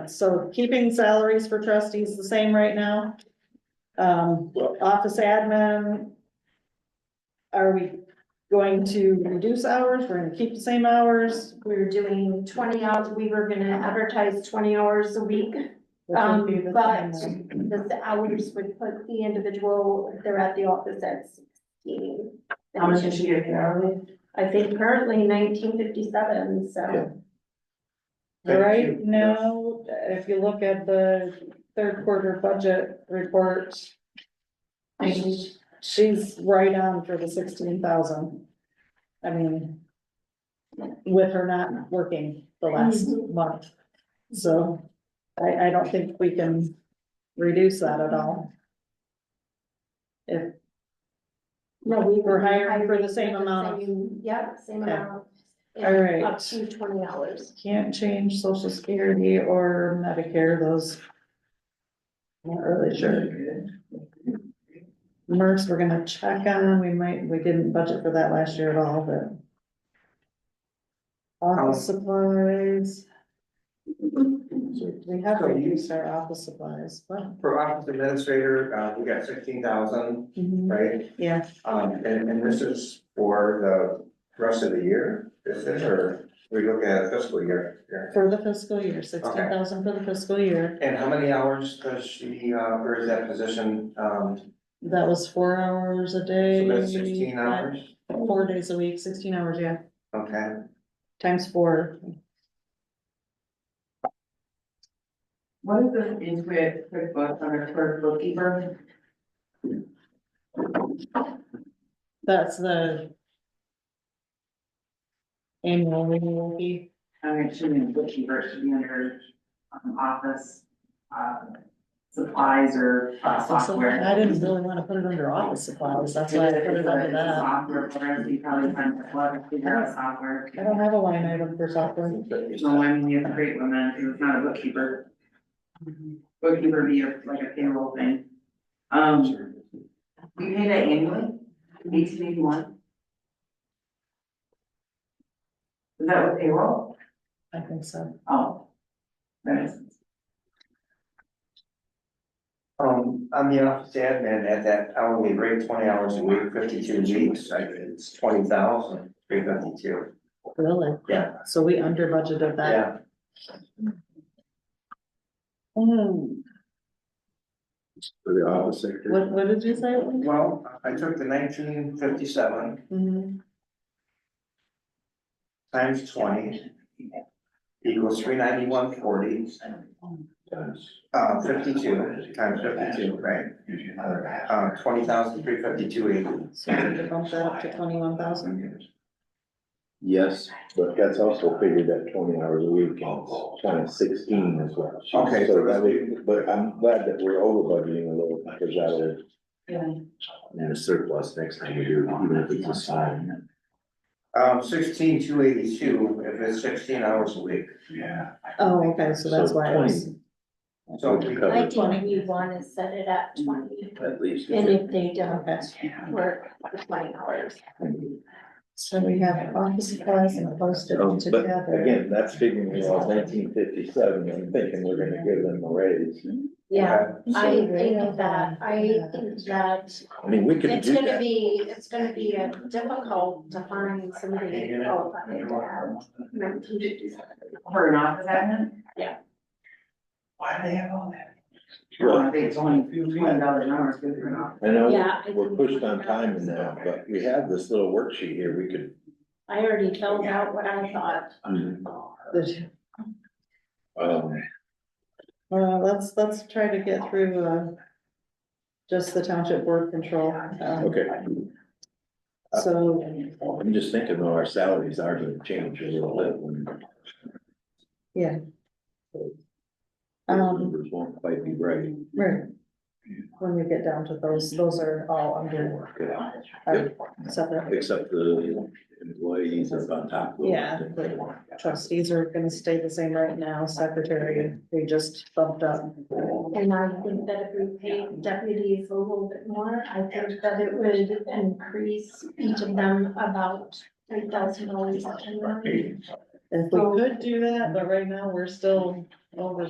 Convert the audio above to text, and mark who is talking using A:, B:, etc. A: yeah, so keeping salaries for trustees the same right now. Um, office admin. Are we going to reduce hours? We're gonna keep the same hours?
B: We were doing twenty hours, we were gonna advertise twenty hours a week.
A: which would be the
B: Um, but
A: same,
B: the hours would put the individual, if they're at the office at sixteen.
C: How much is she getting hourly?
B: I think currently nineteen fifty-seven,
D: Yeah.
B: so
D: Thank
A: Right
D: you.
A: now, if you look at the third quarter budget report, she's- she's right on for the sixteen thousand. I mean, with her not working the last month, so I, I don't think we can reduce that at all. If,
B: no, we
A: We're
B: were
A: hiring
B: hiring.
A: for the same amount
B: Yep, same
A: Yeah.
B: amount.
A: All right.
B: Up to twenty hours.
A: can't change social security or Medicare, those. Not really sure. MERS, we're gonna check on, we might, we didn't budget for that last year at all, but. Office supplies, we have
D: So you-
A: reduced our office supplies, but,
D: For office administrator, uh, we got sixteen thousand, right?
A: yeah,
D: Um, and, and this is for the rest of the year, is this, or we look at fiscal year? here?
A: for the fiscal year, sixteen thousand for the fiscal year,
D: And how many hours does she, uh, or is that position, um,
A: that was four hours a day.
D: so that's sixteen
A: five-
D: hours?
A: Four days a week, sixteen hours, yeah,
D: Okay,
A: times four,
C: What is the Intuit QuickBooks under clerk bookkeeper?
A: that's the. Annual renewal fee,
C: I'm assuming bookkeeper should be under um, office, uh, supplies or uh,
A: So
C: software.
A: I didn't really wanna put it under office supplies, that's why I put it under that.
C: Software, program, so you probably find a lot of figure out software.
A: I don't have a line item for software.
C: No, I mean, you have a great woman, who's not a bookkeeper. Bookkeeper be a- like a payroll thing. Um, we pay that annually, eighteen eighty-one. Is that with payroll?
A: I think so.
C: Oh. That is,
D: um, on the office admin, at that hourly rate, twenty hours a week, fifty-two weeks, I, it's twenty thousand, three fifty-two.
A: Really?
D: Yeah.
A: So we under budgeted that.
D: Yeah,
A: Hmm,
E: for the office sector.
A: what, what did you say?
D: well, I took the nineteen fifty-seven
A: Mhm.
D: times twenty equals three ninety-one forty, uh, fifty-two, times fifty-two, right? Uh, twenty thousand, three fifty-two eighty.
A: So we need to bump that up to twenty-one thousand.
E: Yes, but that's also figured at twenty hours a week and twenty sixteen as well.
D: Okay, so
E: that
D: that's-
E: would- But I'm glad that we're over budgeting a little because that'll. And a surplus next time we do, even if it's a sign.
D: Um, sixteen, two eighty-two, if it's sixteen hours a week.
E: Yeah.
A: Oh, okay, so that's why I was,
D: So
E: So
D: we-
B: I
E: covered
B: think we wanna set it at twenty,
E: at least.
B: and if they don't
A: okay.
B: work twenty hours.
A: So we have office supplies and postage
E: Um, but
A: together.
E: again, that's figuring it was nineteen fifty-seven, I'm thinking we're gonna give them a raise.
B: Yeah, I
A: So they
B: think
A: have
B: that,
A: that.
B: I think that
E: I mean, we could
B: it's
E: do
B: gonna
E: that.
B: be, it's gonna be uh, difficult to find somebody qualified to have. mental disabilities.
C: for an office admin,
D: Why do they have all that?
E: Well,
C: I think it's only twenty dollars an hour, it's good for an office.
E: I know
B: Yeah. I
E: we're
B: think-
E: pushed on time and that, but we have this little worksheet here, we could.
B: I already filled out what I thought.
A: The-
E: Um,
A: Uh, let's, let's try to get through, uh, just the township board control. um,
E: okay,
A: So
E: I'm just thinking though, our salaries are gonna change a little bit when.
A: Yeah.
E: Those
A: Um,
E: Numbers won't quite be right.
A: Right. When we get down to those, those are all under, are separate.
E: Except the employees up on top. of it.
A: Yeah, but Trustees are gonna stay the same right now, secretary, we just bumped up.
B: And I think that if we paid deputies a little bit more, I think that it would increase each of them about three thousand dollars.
A: If we could do that, but right now, we're still over